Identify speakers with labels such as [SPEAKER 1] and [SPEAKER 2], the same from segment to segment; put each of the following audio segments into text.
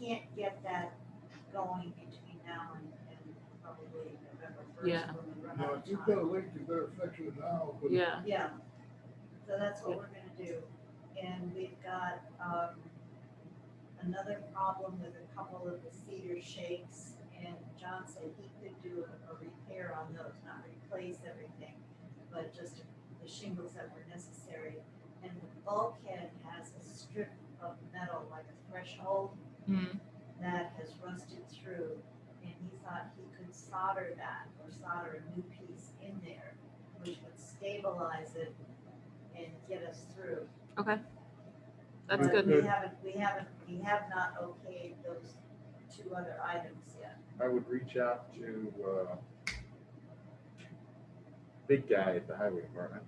[SPEAKER 1] can't get that going between now and, and probably November
[SPEAKER 2] Yeah.
[SPEAKER 1] first when we run
[SPEAKER 3] Now,
[SPEAKER 1] out
[SPEAKER 3] if you've
[SPEAKER 1] of time.
[SPEAKER 3] got a leak, you better fix it now, but
[SPEAKER 2] yeah.
[SPEAKER 1] Yeah, so that's what we're gonna do. And we've got, um, another problem with a couple of the cedar shakes. And John said he could do a, a repair on those, not replace everything, but just the shingles that were necessary. And the bulkhead has a strip of metal, like a threshold,
[SPEAKER 2] Mm.
[SPEAKER 1] that has rusted through. And he thought he could solder that or solder a new piece in there, which would stabilize it and get us through.
[SPEAKER 2] That's
[SPEAKER 1] But
[SPEAKER 2] good.
[SPEAKER 1] We haven't, we haven't, we have not okayed those two other items yet.
[SPEAKER 4] I would reach out to, uh, big guy at the highway department.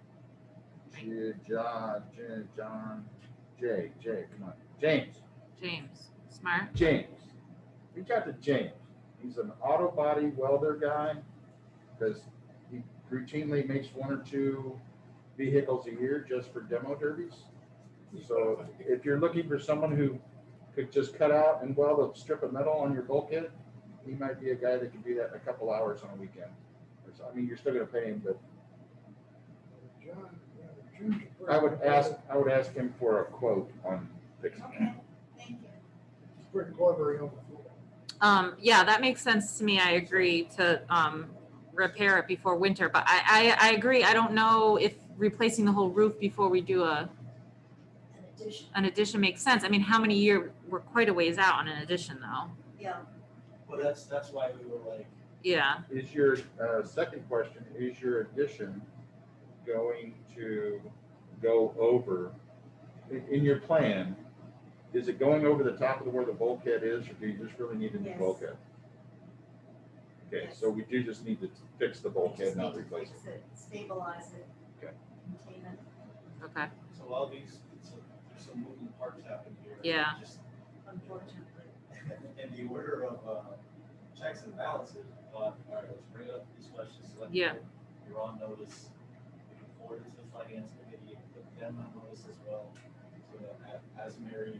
[SPEAKER 4] J- John, J- John, Jay, Jay, come on, James,
[SPEAKER 2] James, smart.
[SPEAKER 4] James. Reach out to James. He's an auto body welder guy, because he routinely makes one or two vehicles a year just for demo derbies. So if you're looking for someone who could just cut out and weld a strip of metal on your bulkhead, he might be a guy that can do that in a couple hours on a weekend. Or so- I mean, you're still gonna pay him, but
[SPEAKER 3] John, you know, choose a person.
[SPEAKER 4] I would ask, I would ask him for a quote on fixing that.
[SPEAKER 1] Okay, thank you.
[SPEAKER 3] It's Pretty clever, you know.
[SPEAKER 2] Um, yeah, that makes sense to me. I agree to um, repair it before winter, but I, I, I agree. I don't know if replacing the whole roof before we do a
[SPEAKER 1] An addition,
[SPEAKER 2] an addition makes sense. I mean, how many year we're quite a ways out on an addition though.
[SPEAKER 1] yeah,
[SPEAKER 5] Well, that's, that's why we were like,
[SPEAKER 2] Yeah.
[SPEAKER 4] Is your, uh, second question, is your addition going to go over, in, in your plan, is it going over the top of where the bulkhead is, or do you just really need a new
[SPEAKER 1] Yes.
[SPEAKER 4] bulkhead? Okay, so we do just need to fix the
[SPEAKER 1] we
[SPEAKER 4] bulkhead,
[SPEAKER 1] just need
[SPEAKER 4] not
[SPEAKER 1] to
[SPEAKER 4] replace
[SPEAKER 1] fix
[SPEAKER 4] it.
[SPEAKER 1] it, stabilize it.
[SPEAKER 4] Okay.
[SPEAKER 1] Contain it.
[SPEAKER 2] Okay.
[SPEAKER 5] so all these, so there's some moving parts happening here.
[SPEAKER 2] Yeah.
[SPEAKER 5] Just-
[SPEAKER 1] unfortunately.
[SPEAKER 5] And the order of, uh, checks and balances, but, all right, let's bring up these questions. so let
[SPEAKER 2] Yeah.
[SPEAKER 5] people- You're on notice, you can forward it to the finance committee, and put them on notice as well. So that a- as Mary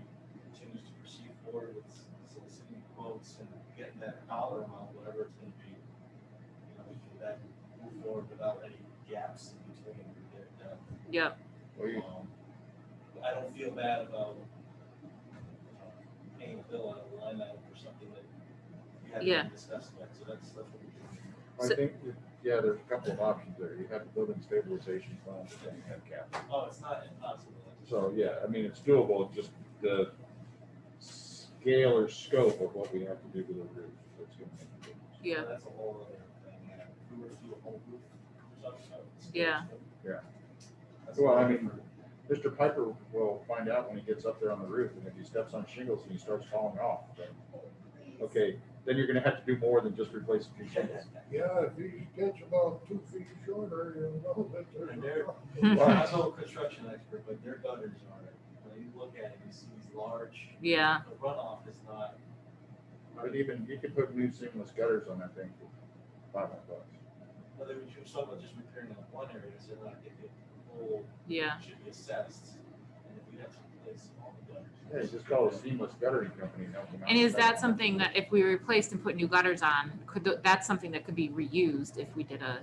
[SPEAKER 5] continues to proceed forward with soliciting quotes and getting that dollar amount, whatever it's gonna be. You know, we can then move forward without any gaps in between their, uh,
[SPEAKER 2] Yep.
[SPEAKER 4] Well, you-
[SPEAKER 5] um, I don't feel bad about paying a bill out of line item for something that we haven't
[SPEAKER 2] Yeah.
[SPEAKER 5] even discussed yet, so that's, that's what we're
[SPEAKER 4] I
[SPEAKER 2] So-
[SPEAKER 4] think, that- yeah, there's a couple of options there. You have the building stabilization fund, but then you have capital.
[SPEAKER 5] doing. Oh, it's not impossible. I just-
[SPEAKER 4] So, yeah, I mean, it's doable, it's just the scale or scope of what we have to do to the roof. that's gonna make a difference.
[SPEAKER 5] so
[SPEAKER 2] Yeah.
[SPEAKER 5] That's a whole other thing, yeah. If we were to do a whole group,
[SPEAKER 2] Yeah.
[SPEAKER 4] Yeah.
[SPEAKER 5] That's
[SPEAKER 4] Well, I
[SPEAKER 5] a-
[SPEAKER 4] mean- Mr. Piper will find out when he gets up there on the roof, and if he steps on shingles and he starts falling off, then, okay, then you're gonna have to do more than just replace a few shingles.
[SPEAKER 3] Yeah, if he gets about two feet shorter, you'll know that there's.
[SPEAKER 5] And
[SPEAKER 3] a
[SPEAKER 5] there-
[SPEAKER 3] problem.
[SPEAKER 5] Well, I'm no construction expert, but their gutters are, when you look at it, you see these large,
[SPEAKER 2] Yeah.
[SPEAKER 5] the runoff is not.
[SPEAKER 4] But even, you could put new seamless gutters on that thing for five hundred bucks.
[SPEAKER 5] Whether we choose someone just repairing that one area, so they're not getting the whole,
[SPEAKER 2] Yeah.
[SPEAKER 5] should be assessed, and if we have to replace all the gutters.
[SPEAKER 4] Yeah, just call a seamless guttering company and help them out.
[SPEAKER 2] And is that something that if we replaced and put new gutters on, could th- that's something that could be reused if we did a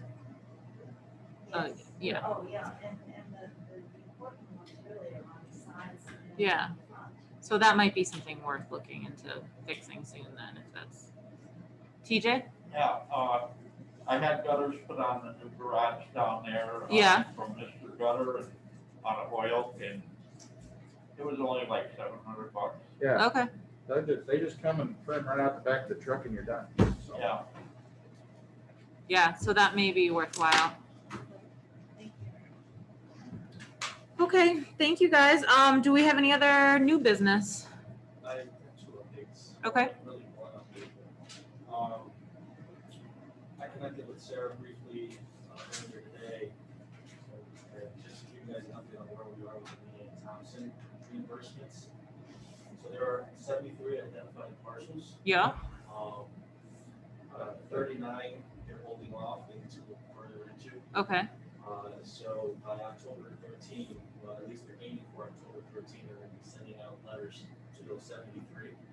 [SPEAKER 2] uh,
[SPEAKER 1] Yes.
[SPEAKER 2] yeah.
[SPEAKER 1] Oh, yeah, and, and the, the important ones really are on the sides and.
[SPEAKER 2] Yeah.
[SPEAKER 1] the front.
[SPEAKER 2] So that might be something worth looking into fixing soon then if that's. TJ?
[SPEAKER 6] Yeah, uh, I had gutters put on the new garage down there. uh,
[SPEAKER 2] Yeah.
[SPEAKER 6] From Mr. Gutter and on oil and it was only like seven hundred bucks.
[SPEAKER 4] Yeah,
[SPEAKER 2] Okay.
[SPEAKER 4] they just, they just come and print right out the back of the truck and you're done. So,
[SPEAKER 6] Yeah,
[SPEAKER 2] Yeah, so that may be worthwhile.
[SPEAKER 1] Thank you.
[SPEAKER 2] Okay, thank you guys. Um, do we have any other new business?
[SPEAKER 5] I have two updates.
[SPEAKER 2] Okay.
[SPEAKER 5] Really one update. Um, I connected with Sarah briefly uh, earlier today. uh, Just to give you guys an update on where we are with the Leanne Thompson reimbursements. So there are seventy-three identified parcels.
[SPEAKER 2] Yeah.
[SPEAKER 5] Um, uh, thirty-nine, they're holding off into further into.
[SPEAKER 2] Okay.
[SPEAKER 5] Uh, so by October thirteen, well, at least they're aiming for October thirteen, they're gonna be sending out letters to those seventy-three.